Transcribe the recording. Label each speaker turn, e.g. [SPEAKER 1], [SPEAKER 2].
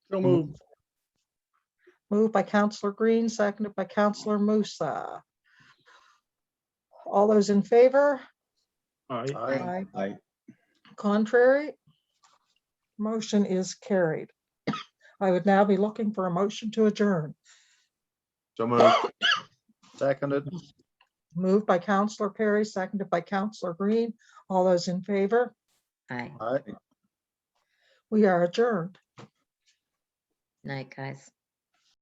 [SPEAKER 1] So moved.
[SPEAKER 2] Moved by Counselor Green, seconded by Counselor Musa. All those in favor?
[SPEAKER 1] Aye.
[SPEAKER 2] Aye.
[SPEAKER 3] Aye.
[SPEAKER 2] Contrary? Motion is carried. I would now be looking for a motion to adjourn.
[SPEAKER 3] So moved. Seconded.
[SPEAKER 2] Moved by Counselor Perry, seconded by Counselor Green. All those in favor?
[SPEAKER 4] Aye.
[SPEAKER 3] Aye.
[SPEAKER 2] We are adjourned.
[SPEAKER 4] Night, guys.